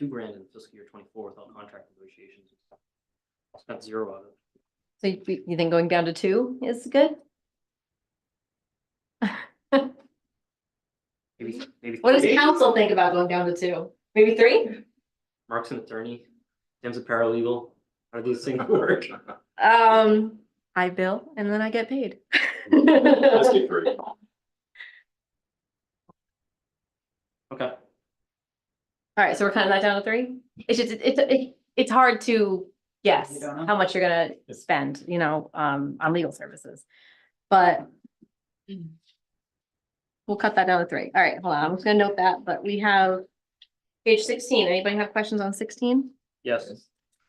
two grand in fiscal year twenty-four without contract negotiations. Spent zero of it. So you you think going down to two is good? Maybe, maybe. What does three. council think about going down to two? Maybe three? Mark's an attorney, Tim's a paralegal, how do these things work? Um, I bill and then I get paid. Let's do three. Okay, All right, so we're cutting that down to three? It's just, it's, it- it's hard to guess You don't know? how much you're gonna spend, you know, um, on legal services. But we'll cut that down to three. All right, hold on, I'm just gonna note that, but we have page sixteen. Anybody have questions on sixteen? yes.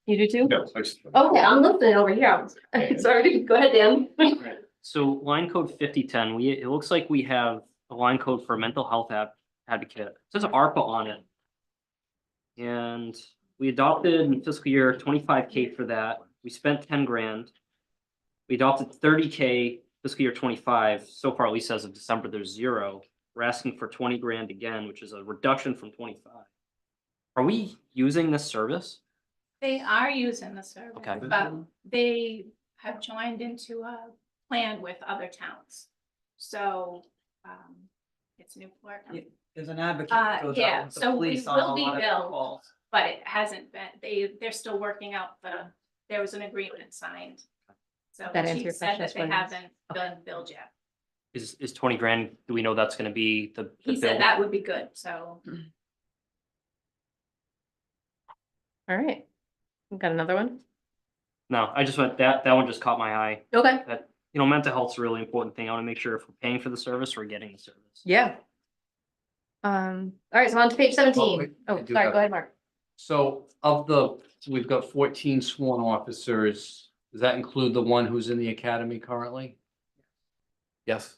You do too? No, I just- Okay, I'm listening over here. I'm Sorry, go ahead, Dan. So line code fifty ten, we, it looks like we have a line code for mental health ad- advocate, It says ARPA on it. And we adopted in fiscal year twenty-five K for that, we spent ten grand. We adopted thirty K fiscal year twenty-five, so far at least as of December, there's zero. We're asking for twenty grand again, which is a reduction from twenty-five. Are we using this service? They are using the service, Okay. but they have joined into a plan with other towns. So, um, it's Newport, Yeah. There's an advocate. Uh, that goes out yeah, with the so we police on a will be lot of billed. calls. but it hasn't been, they, they're still working out the, there was an agreement signed. So That the answer your chief said question, that they Sweden? haven't Okay. done billed yet. Is, is twenty grand, do we know that's gonna be the? the He said bill? that would be good, so All right. We've Got another one? No, I just went, that, that one just caught my eye. Okay. you know, mental health's a really important thing. I want to make sure if we're paying for the service, we're getting the service. Yeah. Um, all right, so on to page seventeen. wait, I Oh, do sorry, have- go ahead, Mark. So of the, we've got fourteen sworn officers. Does that include the one who's in the academy currently? Yes.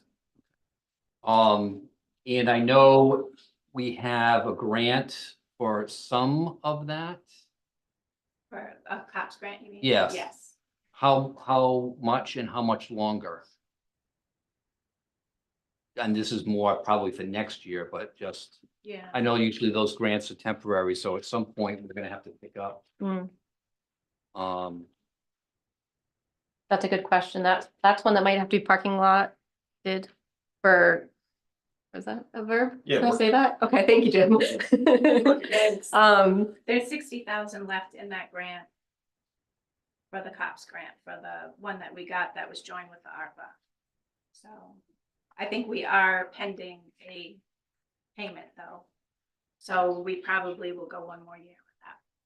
Um, and I know we have a grant for some of that. for a cops grant, you mean? Yes. Yes. How, how much and how much longer? And this is more probably for next year, but just, Yeah. I know usually those grants are temporary, so at some point we're gonna have to pick up. Mm, Um, That's a good question. That's, that's one that might have to be parking lot did for, was that a verb? Yeah, Can I work. say that? Okay, thank you, Jim. Um, There's sixty thousand left in that grant. For the cops grant, for the one that we got that was joined with the ARPA. So I think we are pending a payment though. So we probably will go one more year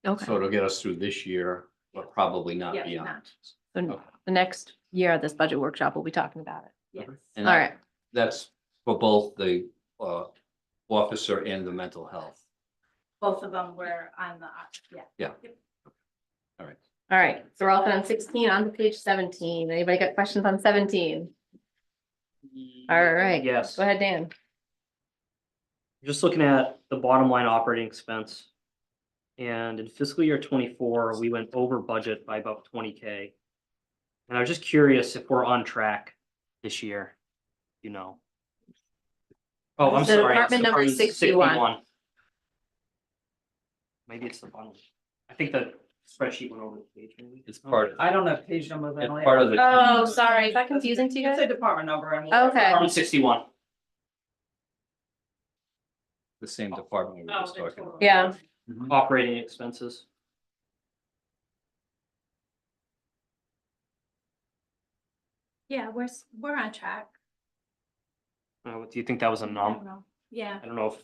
with okay, So it'll get us through this year, but probably not Yeah, beyond. not. so the next year, this budget workshop, we'll be talking about it. that. Yes. And All right. That's for both the uh officer and the mental health. Both of them were on the, ar- yeah. All right. All right, so we're all set on sixteen, on to page seventeen. Anybody got questions on seventeen? All right. Yes. Go ahead, Dan. Just looking at the bottom line operating expense. And in fiscal year twenty-four, we went over budget by about twenty K. And I was just curious if we're on track this year, you know. Oh, I'm So sorry. it's department number 61. Maybe it's the bottom. I think the spreadsheet went over the page. maybe. It's part of, I don't have page numbers. I it's only part have- of the, Oh, sorry, is that confusing to you It's a guys? department number and. we'll- Okay. Department sixty-one. the same department we were just talking about. Yeah. operating expenses. Yeah, we're, s- we're on track. Uh, do you think that was an I anom- don't know. Yeah, I don't know if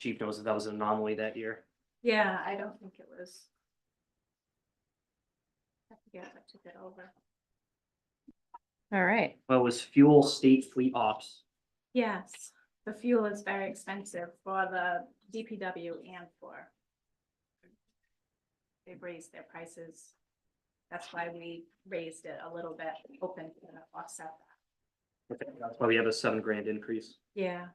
Chief knows if that was an anomaly that year. yeah, I don't think it was. I forget what took it over. All right, Well, it was fuel state fleet ops. Yes, the fuel is very expensive for the DPW and for. They raised their prices. That's why we raised it a little bit, hoping to offset that. That's why we have a seven grand increase. Yeah.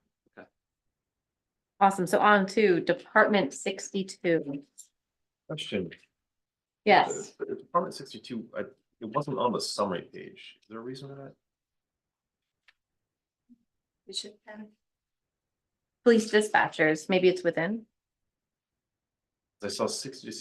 awesome. So on to Department sixty-two. Question. Yes, Uh, Department sixty-two, I, it wasn't on the summary page. Is there a reason for that? It should have been. police dispatchers, maybe it's within. I saw sixty